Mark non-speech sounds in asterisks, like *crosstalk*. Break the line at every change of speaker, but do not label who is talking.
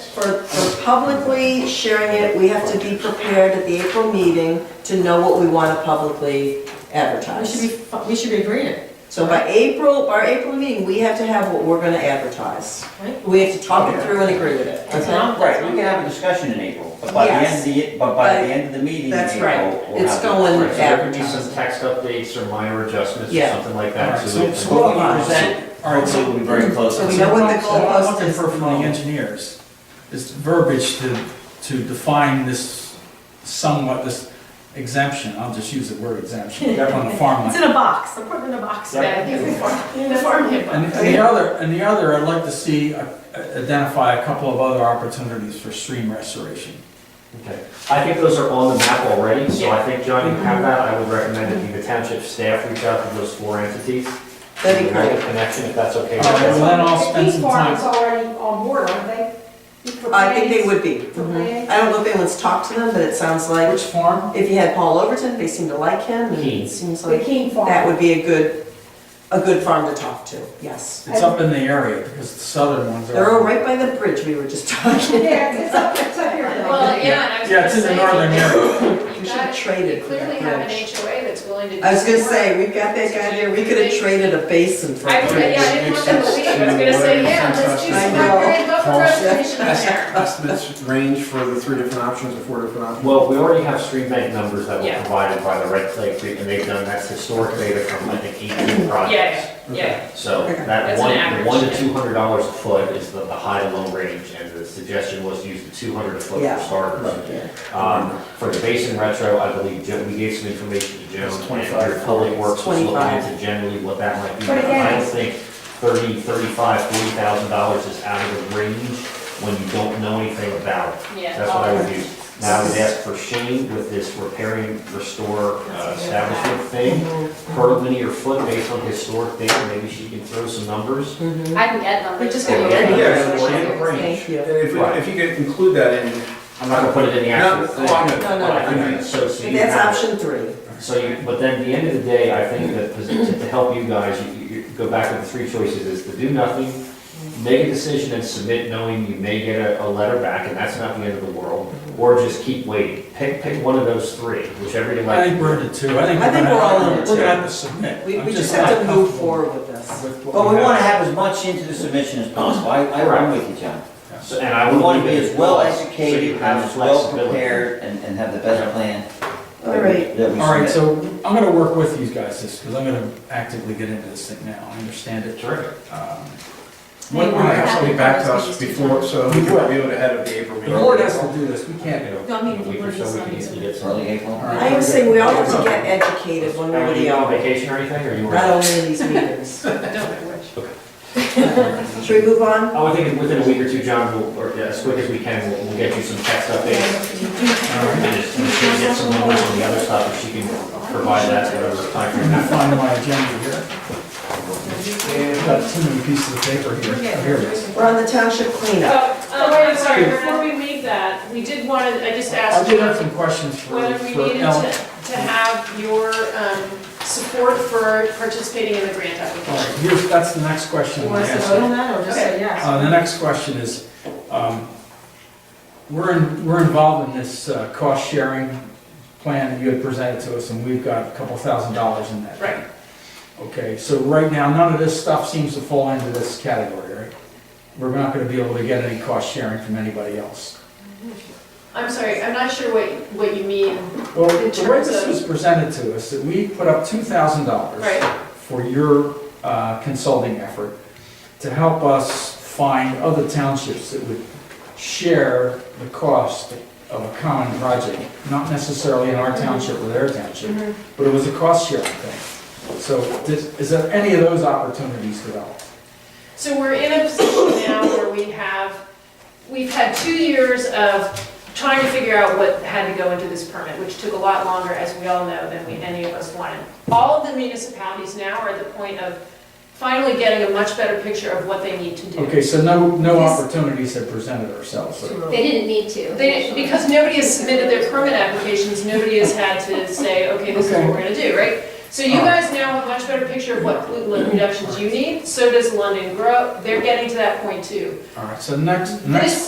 for, for publicly sharing it, we have to be prepared at the April meeting to know what we want to publicly
We should
advertise.
be, we should be agreeing,
So by April, our April meeting, we have to have what we're going to advertise.
right?
We have to talk it through and agree with it.
That's not-
Right, we can have a discussion in April, but by the end of the, but by the end of the meeting in
That's
April,
right.
we'll have.
It's
it.
going
Right, so there could be some
advertised.
text updates or minor adjustments or
Yeah.
something like
All
that.
right,
that-
so-
What we present, our
so-
will be very close.
So we know what the
So what I'm
goalpost
looking
is.
for from the engineers is verbiage to, to define this somewhat, this exemption, I'll just use the word exemption, on the
*laughs*
It's
farmland.
in a box, I'm putting it in a box bag, in the farm- in the farmhand
And
box.
and the other, and the other, I'd like to see, uh, identify a couple of other opportunities for stream restoration.
Okay. I think those are on the map already, so I think, John, you have that. I would recommend that the township staff reach out to those four entities.
That'd be
and make
great.
a Connection, if that's okay. with
All right.
you.
well, then I'll spend some time-
These farms already on board, aren't they? For
I think they
plants?
would be. Mhm. I don't know if anyone's talked to them, but it sounds like,
Which farm?
if you had Paul Overton, they seem to like him, and
Keene.
it seems
The
like
King Farm.
that would be a good, a good farm to talk to, yes.
It's up in the area, because the southern ones are.
They're all right by the bridge we were just *laughs*
*laughs*
talking.
Yeah, it's up, it's up here.
Well, yeah, and I was
Yeah,
gonna
it's in
say.
the northern *laughs* area.
We
You've
should have
got,
traded
you
for
clearly
that
have an
bridge.
HOA that's willing to do.
I was gonna
some
say,
work.
we've got that guy there, we could have traded a basin for
I,
a
would- yeah, I
bridge.
didn't want them to leave, I was gonna say, yeah, let's do
I
some
know.
upgrade, buffer restoration in there.
estimates range for the three different options or four different options?
Well, we already have street bank numbers that were
Yeah.
provided by the Red Clay Creek, and they've done, that's historic data from, I think, eighteen projects.
Yeah, yeah, yeah.
So
Okay.
that
That's an
one,
average,
one to
yeah.
two hundred dollars a foot is the, the high to low range, and the suggestion was to use the two hundred a foot
Yeah.
for starters. Um, for the basin retro, I believe, Joan, we gave some information to Joan,
It's
and
25.
your public works was looking
25.
into generally what that might be.
But again-
I don't think thirty, thirty-five, forty thousand dollars is out of the range when you don't know anything about it.
Yeah.
That's what I would do. Now, I would ask for Shane with this repairing, restore uh, establishment thing,
Mm-hmm.
per linear foot based on historic data, maybe she can throw some numbers.
Mm-hmm.
I can add them.
We're just gonna
Yeah,
get
yeah,
it.
it's
in the
Thank you.
And if, if you could include that in.
I'm not gonna put it in the
No,
actual
no, I'm
thing.
good.
No, no,
But I
no.
think So, so you
That's
have-
option three.
So you, but then at the end of the day, I think that pos- to to help you guys, you, you you go back with the three choices is to do nothing, make a decision and submit knowing you may get a, a letter back and that's not the end of the world, or just keep waiting. Pick, pick one of those three, whichever you
I
like.
think we're in the two, I think.
I think
gonna-
we're all in the
We're
two.
gonna have to submit.
We,
I'm
we just
not
have to move
comfortable
forward with this.
with what
But we
have.
wanna have as much into the submission as possible, I, I- I'm with you, John.
So- And I
We
would
wanna be
leave it
as well
as- so you
educated and
have
as well
flexibility.
prepared and, and have the best plan. that we-
All right.
That we
All right,
submit.
so I'm gonna work with you guys this, because I'm gonna actively get into this thing now, I understand it.
Terrific.
Um,
We're gonna have something back to us before, so we can review it ahead of the April
The
meeting.
board has to do this, we
You
can't.
know,
No, I
in
mean,
a week or so, we can easily get some.
Early April.
All right.
I am saying we all have to get educated one way
Now,
or
Were
the
you on
other,
vacation or anything, or you were?
not only in these meetings. *laughs* Should we move on?
I would think within a week or two, John, we'll- or yeah, as quick as we can, we'll, we'll get you some text updates. And just, and she can get some numbers on the other stuff, if she can provide that, whatever time frame
I
that.
find my agenda here. I've got too many pieces of paper here, Oh, here it is.
We're on the township cleanup.
Oh, um, I'm sorry, before we leave that, we did want to, I just
I
asked
did have some
you
questions for,
whether we
for
needed
Ellen.
to, to have your, um, support for participating in the grant
All right,
application.
here's, that's the next question.
You
I'm
want us to
asking.
vote on that, or just say yes?
Uh, the next question is, um, we're, in- we're involved in this uh, cost sharing plan that you had presented to us, and we've got a couple thousand dollars in that.
Right.
Okay, so right now, none of this stuff seems to fall into this category, right? We're not gonna be able to get any cost sharing from anybody else.
I'm sorry, I'm not sure what, what you mean,
Well, the way
In terms
this
of-
was presented to us, that we put up two thousand dollars
right?
for your uh, consulting effort to help us find other townships that would share the cost of a common project, not necessarily in
Mm-hmm.
our township or their township, but it was a cost sharing thing. So does- is there any of those opportunities developed?
So we're in a position now where we have, we've had two years of trying to figure out what had to go into this permit, which took a lot longer, as we all know, than we, any of us wanted. All of the municipalities now are at the point of finally getting a much better picture of what they need to do.
Okay, so no, no opportunities have presented ourselves.
They didn't need to.
They, because nobody has submitted their permit applications, nobody has had to say, okay, this is what we're gonna do, right? So you guys now have a much better picture of what pollutant reductions you need, so does London Grow, they're getting to that point too.
All right, so next, next
This